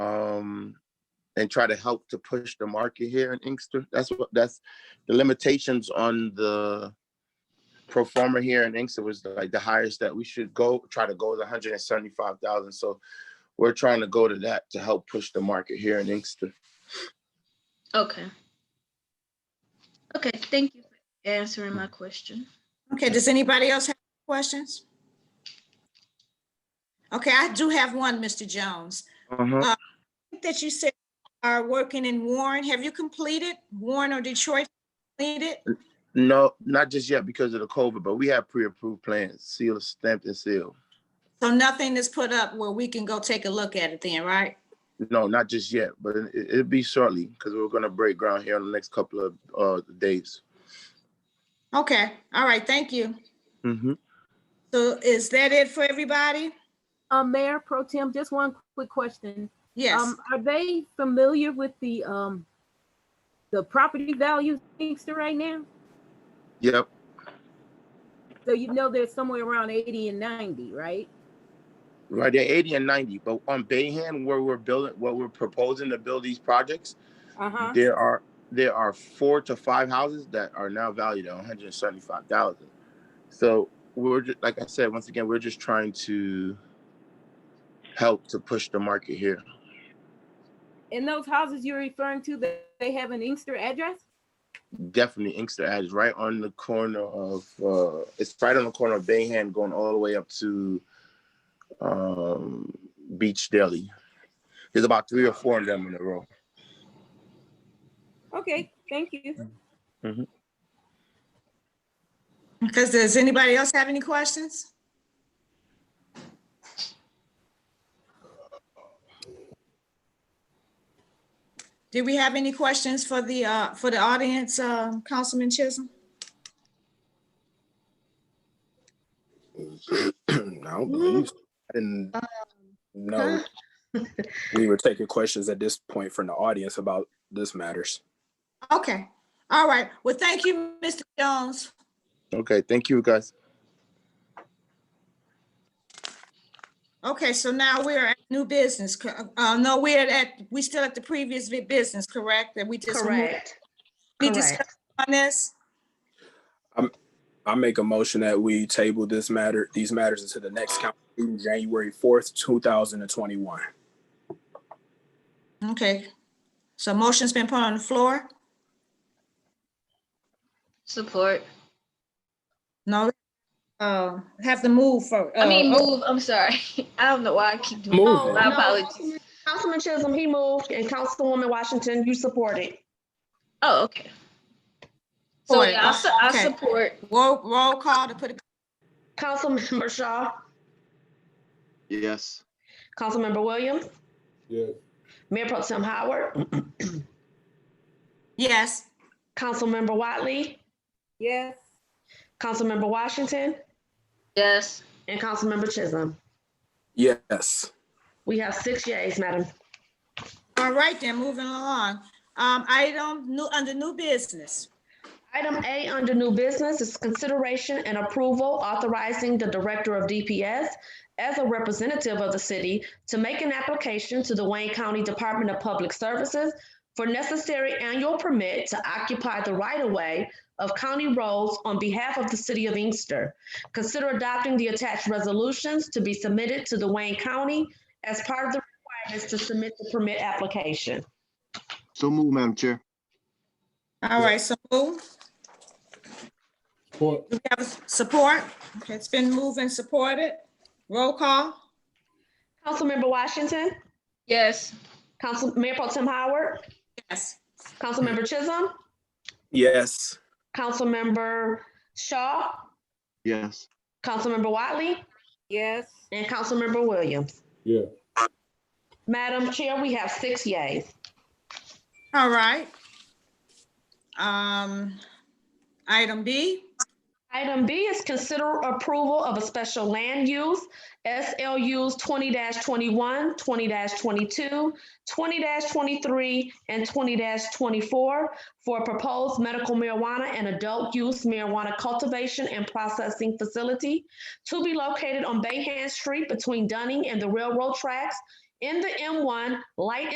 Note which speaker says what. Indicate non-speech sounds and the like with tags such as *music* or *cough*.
Speaker 1: um, and try to help to push the market here in Inkster. That's what that's the limitations on the performer here in Inkster was like the highest that we should go try to go is 175,000. So we're trying to go to that to help push the market here in Inkster.
Speaker 2: Okay. Okay, thank you for answering my question.
Speaker 3: Okay, does anybody else have questions? Okay, I do have one, Mr. Jones.
Speaker 1: Uh-huh.
Speaker 3: I think That you said are working in Warren. Have you completed Warren or Detroit? Completed?
Speaker 1: No, not just yet because of the COVID, but we have pre-approved plans, sealed, stamped and sealed.
Speaker 3: So nothing is put up where we can go take a look at it then, right?
Speaker 1: No, not just yet, but it, it'll be shortly because we're gonna break ground here in the next couple of uh, days.
Speaker 3: Okay, all right, thank you.
Speaker 1: Mm-hmm.
Speaker 3: So is that it for everybody?
Speaker 4: Um, Mayor Pro Tem, just one quick question.
Speaker 3: Yes,
Speaker 4: Um, are they familiar with the, um, the property values in Inkster right now?
Speaker 1: Yep.
Speaker 4: So you know they're somewhere around eighty and ninety, right?
Speaker 1: Right, they're 80 and 90, but on Bayhand, where we're building, what we're proposing to build these projects,
Speaker 4: Uh-huh.
Speaker 1: there are, there are four to five houses that are now valued at 175,000. So we're, ju- like I said, once again, we're just trying to help to push the market here.
Speaker 4: And those houses you're referring to, they, they have an Inkster address?
Speaker 1: Definitely Inkster Ave is right on the corner of, uh, it's right on the corner of Bayhand going all the way up to, um, Beach Deli. There's about three or four of them in a row.
Speaker 4: Okay, thank you.
Speaker 3: because does anybody else have any questions? Do we have any questions for the, uh, for the audience, uh, Councilman Chisholm?
Speaker 5: *clears throat* I don't believe, so. I didn't know
Speaker 2: huh?
Speaker 5: *laughs* we were taking questions at this point from the audience about this matters.
Speaker 3: Okay, all right. Well, thank you, Mr. Jones.
Speaker 1: Okay, thank you guys.
Speaker 3: Okay, so now we're at new business. co- Uh, no, we're at, we still at the previous vi- business, correct? That we just. removed?
Speaker 6: Correct.
Speaker 3: We
Speaker 6: Correct.
Speaker 3: discussed on this?
Speaker 5: I make a motion that we table this matter, these matters into the next council meeting, January fourth, two thousand and twenty-one.
Speaker 3: Okay, so motion's been put on the floor?
Speaker 2: Support.
Speaker 3: No, uh, have to move for.
Speaker 2: I mean,
Speaker 3: uh,
Speaker 2: move, I'm sorry. *laughs* I don't know why I keep doing.
Speaker 5: Move
Speaker 2: that. My
Speaker 5: it.
Speaker 6: No.
Speaker 2: apologies.
Speaker 6: Councilman Chisholm, he moved, and Councilwoman Washington, you supported.
Speaker 2: Oh, okay. So
Speaker 3: Support.
Speaker 2: yeah, I, su- I
Speaker 3: Okay.
Speaker 2: support.
Speaker 3: oh, Roll, roll call to put it,
Speaker 6: Councilmember Shaw,
Speaker 7: Yes.
Speaker 6: Councilmember Williams,
Speaker 8: Yes.
Speaker 6: Mayor Pro Tem Howard,
Speaker 3: yes,
Speaker 6: Councilmember Watley,
Speaker 4: Yes.
Speaker 6: Councilmember Washington,
Speaker 2: Yes.
Speaker 6: and Councilmember Chisholm.
Speaker 5: Yes,
Speaker 6: We have six yeas, Madam.
Speaker 3: all right then, moving along. Um, item new, under new business.
Speaker 6: Item A under new business is consideration and approval authorizing the Director of DPS as a representative of the city to make an application to the Wayne County Department of Public Services for necessary annual permit to occupy the right-of-way of county roads on behalf of the city of Inkster. Consider adopting the attached resolutions to be submitted to the Wayne County as part of the requirements to submit the permit application.
Speaker 7: So move, Madam Chair.
Speaker 3: All right, so move.
Speaker 8: Support.
Speaker 3: We have support. Okay, it's been moved and supported. Roll call,
Speaker 6: Councilmember Washington,
Speaker 2: Yes.
Speaker 6: Council, Mayor Pro Tim Howard,
Speaker 3: yes.
Speaker 6: Councilmember Chisholm,
Speaker 5: yes.
Speaker 6: Councilmember Shaw,
Speaker 7: Yes.
Speaker 6: Councilmember Wiley,
Speaker 4: Yes.
Speaker 6: and Councilmember Williams.
Speaker 8: Yeah.
Speaker 6: Madam Chair, we have six yays.
Speaker 3: All right. Um, item B,
Speaker 6: Item B is consider approval of a special land use, SLUs twenty 21 20-22, 20 twenty-three, and twenty twenty-four for proposed medical marijuana and adult use marijuana cultivation and processing facility to be located on Bayhand Street between Dunning and the railroad tracks in the M one light